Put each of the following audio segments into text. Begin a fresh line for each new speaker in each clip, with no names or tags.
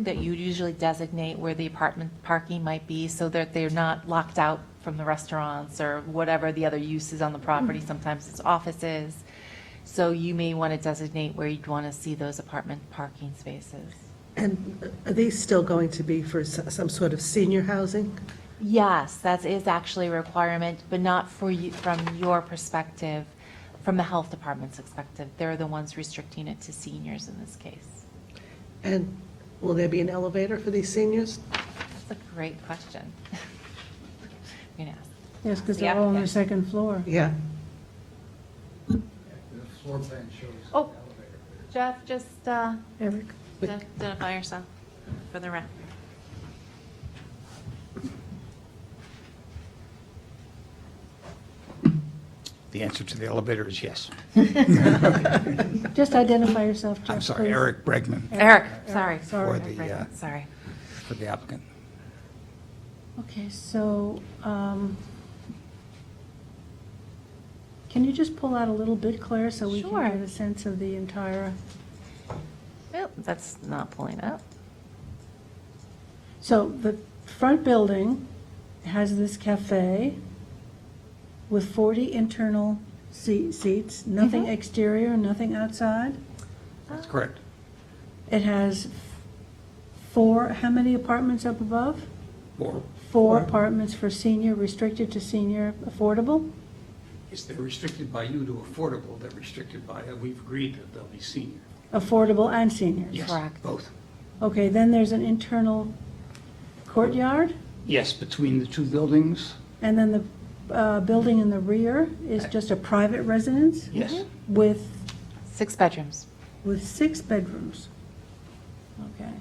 that you usually designate where the apartment parking might be so that they're not locked out from the restaurants or whatever the other uses on the property. Sometimes it's offices. So you may want to designate where you'd want to see those apartment parking spaces.
And are these still going to be for s- some sort of senior housing?
Yes, that is actually a requirement, but not for you, from your perspective, from the health department's perspective. They're the ones restricting it to seniors in this case.
And will there be an elevator for these seniors?
That's a great question. You know,
Yes, because
Yeah,
they're all on
yeah.
the second floor.
Yeah.
The floor plan shows the
Oh.
elevator.
Jeff, just uh,
Eric?
identify yourself for the rep.
The answer to the elevator is yes.
Just identify yourself, Jeff,
I'm sorry,
please.
Eric Bregman
Eric, sorry.
Sorry.
For the,
Eric,
uh,
Sorry.
for the applicant.
Okay, so, um, can you just pull out a little bit, Claire, so we
Sure.
can get a sense of the entire?
Nope, that's not pulling up.
So the front building has this cafe with 40 internal se- seats, nothing
Mhm.
exterior, nothing outside.
That's correct.
It has f- four, how many apartments up above?
Or
Four.
Four apartments for senior, restricted to senior affordable?
Is they're restricted by you to affordable, they're restricted by, uh, we've agreed that they'll be senior.
Affordable and seniors?
Yes,
Correct.
Both.
Okay, then there's an internal courtyard,
Yes, between the two buildings,
and then the uh, building in the rear is just a private residence
yes.
with,
Six bedrooms.
with six bedrooms. Okay.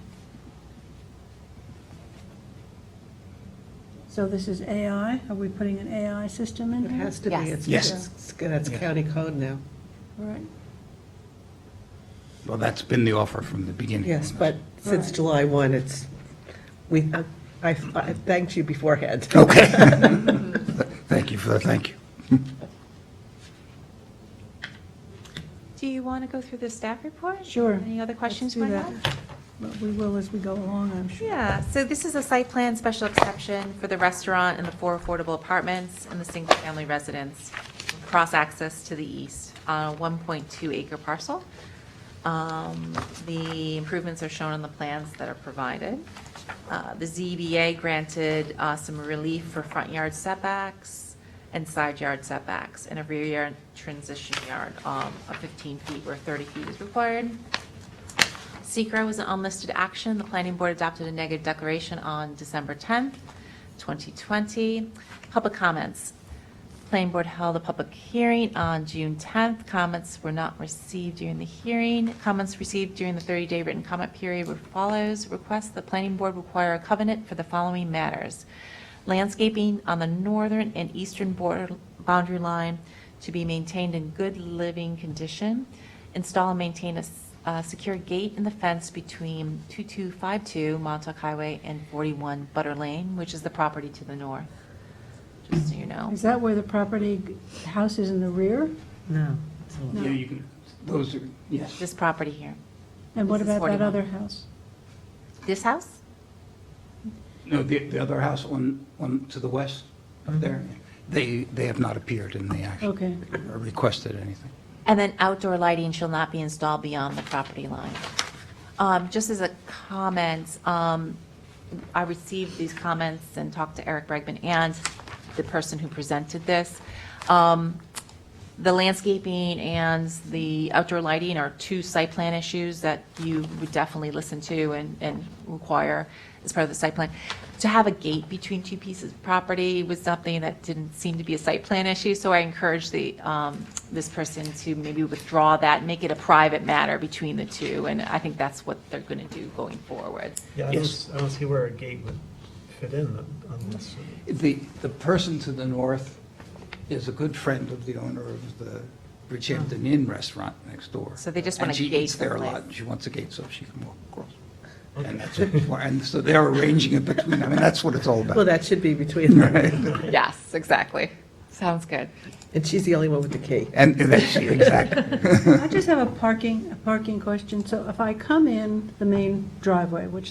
So this is AI, are we putting an AI system in
It
here?
has to be.
Yes.
It's-
Yes.
it's- That's
Yeah.
county code now.
All right.
Well, that's been the offer from the beginning.
Yes, but since
Right.
July 1, it's, we, I- I I thanked you beforehand.
Okay. Thank you for the thank you.
Do you want to go through the staff report?
Sure.
Any other questions
Let's do
you might
that.
have?
But we will as we go along, I'm sure.
Yeah, so this is a site plan special exception for the restaurant and the four affordable apartments and the single-family residence, cross-access to the east, on a 1.2 acre parcel. Um, The improvements are shown on the plans that are provided. Uh, The ZBA granted uh, some relief for front yard setbacks and side yard setbacks, and a rear yard transition yard um, of 15 feet where 30 feet is required. Secra was an unlisted action. The planning board adopted a negative declaration on December 10th, 2020. Public comments. Planning board held a public hearing on June 10th. Comments were not received during the hearing. Comments received during the 30-day written comment period were follows. Request the planning board require a covenant for the following matters. Landscaping on the northern and eastern border boundary line to be maintained in good living condition. Install and maintain a s- a secure gate in the fence between 2252 Montauk Highway and 41 Butter Lane, which is the property to the north, just so you know.
Is that where the property, the house is in the rear?
No.
No.
Yeah, you can, those are, yes.
This property here.
And what
This is
about
41.
that other house?
This house?
No, the, the other house on, on to the west up there, they, they have not appeared in the action.
Okay.
Or requested anything.
And then outdoor lighting shall not be installed beyond the property line. Um, Just as a comment, um, I received these comments and talked to Eric Bregman and the person who presented this. Um, The landscaping and the outdoor lighting are two site plan issues that you would definitely listen to and, and require as part of the site plan. To have a gate between two pieces of property was something that didn't seem to be a site plan issue, so I encourage the, um, this person to maybe withdraw that, make it a private matter between the two, and I think that's what they're gonna do going forward.
Yeah, I
Yes.
don't, I don't see where a gate would fit in on this.
The, the person to the north is a good friend of the owner of the Bridgehampton Inn restaurant next door.
So they just want a
And
gate
she eats there a lot,
someplace.
and she wants a gate so she can walk across. And that's what, and so they're arranging it between, I mean, that's what it's all
Well,
about.
that should be between them.
Yes, exactly. Sounds good.
And she's the only one with the key.
And that's, exactly.
I just have a parking, a parking question. So if I come in the main driveway, which